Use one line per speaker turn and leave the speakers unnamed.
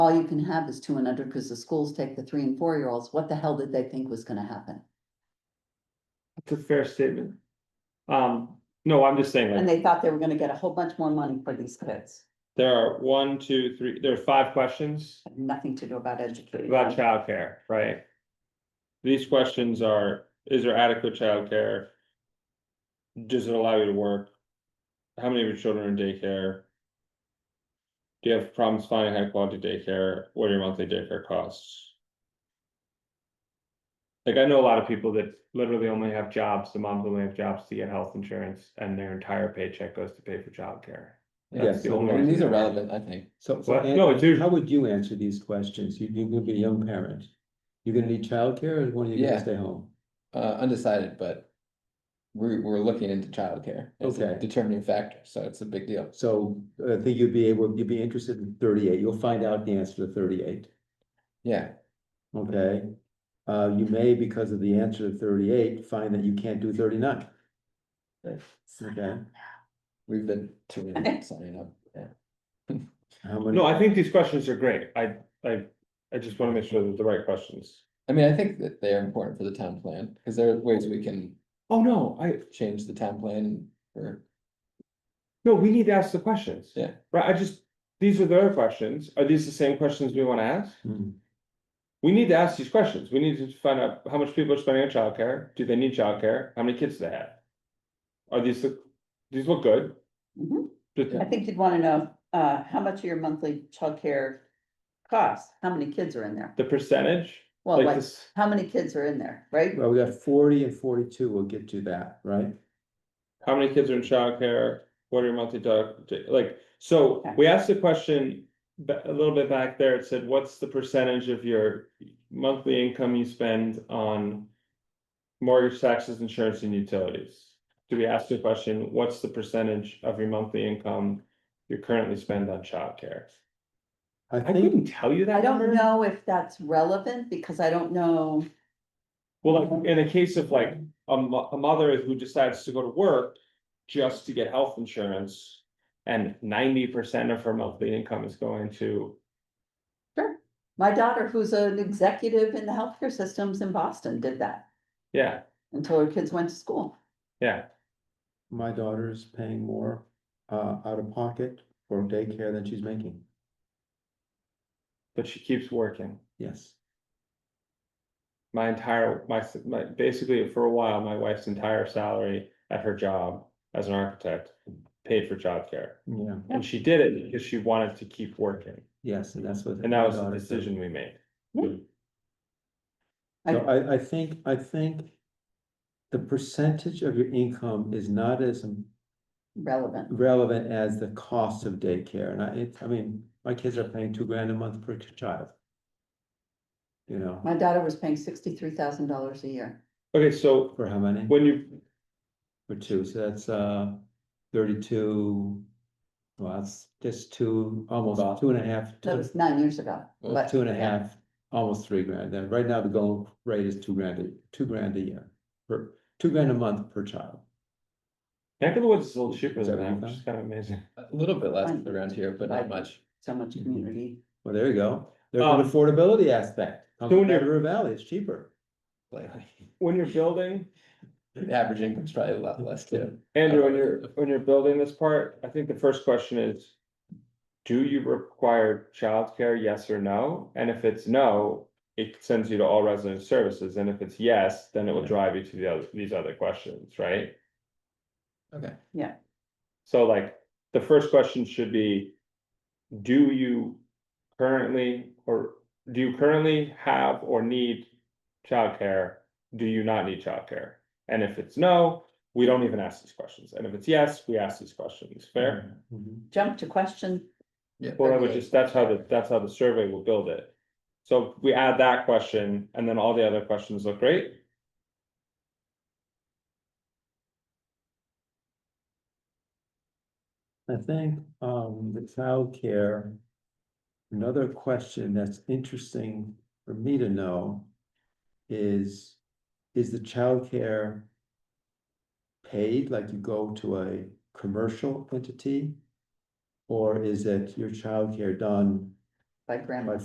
all you can have is two and under, because the schools take the three and four year olds, what the hell did they think was gonna happen?
That's a fair statement. Um, no, I'm just saying,
And
like,
they thought they were gonna get a whole bunch more money for these kids,
there are one, two, three, there are five questions
Had nothing to do about educating
about
them.
childcare, right? These questions are, is there adequate childcare? Does it allow you to work? How many of your children are in daycare? Do you have problems finding high quality daycare? What are your monthly daycare costs? Like, I know a lot of people that literally only have jobs, the moms only have jobs to get health insurance and their entire paycheck goes to pay for childcare.
Yeah,
That's the
so,
only
I mean,
reason.
these are relevant, I think.
So, so
What?
Ann,
No, it's usually.
how would you answer these questions? You, you're gonna be a young parent. You're gonna need childcare or one of you
Yeah.
gonna stay home?
Uh, undecided, but we're, we're looking into childcare. It's a
Okay.
Determining factor, so it's a big deal.
So I think you'd be able, you'd be interested in thirty-eight. You'll find out the answer to thirty-eight,
Yeah,
okay? Uh, you may, because of the answer to thirty-eight, find that you can't do thirty-nine, okay?
Uh-huh.
we've been tuning, in, signing up, yeah.
How many?
No, I think these questions are great. I, I, I just wanna make sure that the right questions.
I mean, I think that they are important for the town plan, because there are ways we can
Oh, no, I,
change the town plan or,
no, we need to ask the questions.
Yeah.
Right, I just, these are their questions. Are these the same questions we wanna ask?
Hmm.
We need to ask these questions. We need to find out how much people are spending on childcare. Do they need childcare? How many kids do they have? Are these, the- these look good?
Mhm.
Just-
I think you'd wanna know, uh, how much of your monthly childcare costs, how many kids are in there?
The percentage,
Well,
like
like,
this,
how many kids are in there, right?
Well, we got forty and forty-two. We'll get to that, right?
how many kids are in childcare? What are your monthly dog, like, so
Okay.
we asked the question. ba- a little bit back there, it said, what's the percentage of your monthly income you spend on? Mortgage taxes, insurance and utilities? Do we ask the question, what's the percentage of your monthly income you currently spend on childcare?
I
I
think,
couldn't tell you that.
I don't
number.
know if that's relevant, because I don't know,
Well, like, in a case of like, a mo- a mother who decides to go to work just to get health insurance. And ninety percent of her monthly income is going to,
my daughter, who's an executive in the healthcare systems in Boston, did that
yeah,
until her kids went to school.
yeah,
my daughter's paying more, uh, out of pocket for daycare than she's making,
but she keeps working.
yes.
My entire, my, s- my, basically for a while, my wife's entire salary at her job as an architect paid for childcare.
Yeah,
And she did it because she wanted to keep working,
yes, and that's what.
and that
my
was the
daughter said.
decision we made.
So
I-
I, I think, I think the percentage of your income is not as
Relevant,
relevant as the cost of daycare. And I, it, I mean, my kids are paying two grand a month per child. You know,
my daughter was paying sixty-three thousand dollars a year,
Okay, so
for how many?
when you,
For two, so that's, uh, thirty-two, well, that's just two, almost two and a half,
that
two,
was nine years ago,
Well,
but.
two and a half, almost three grand. Then right now the goal rate is two grand, a- two grand a year, per, two grand a month per child.
back in the woods is a little cheaper than that,
Seventy-five?
which is kind of amazing.
a little bit less around here, but not much.
So much
Mhm.
community,
Well, there you go. There's
Um,
an affordability aspect. Comes
so
to
when you're-
River Valley, it's cheaper.
lately.
When you're building,
The average income's probably a lot less too.
Andrew, when you're, when you're building this part, I think the first question is. Do you require childcare, yes or no? And if it's no, it sends you to all resident services, and if it's yes, then it will drive you to the other, these other questions, right?
Okay,
So like, the first question should be. Do you currently, or do you currently have or need childcare? Do you not need childcare? And if it's no, we don't even ask these questions, and if it's yes, we ask these questions, fair?
Mhm.
jump to question,
yeah.
Well, I would just, that's how the, that's how the survey will build it. So we add that question and then all the other questions look great.
I think, um, the childcare. Another question that's interesting for me to know is, is the childcare paid, like you go to a commercial entity? Or is it your childcare done
by grandma.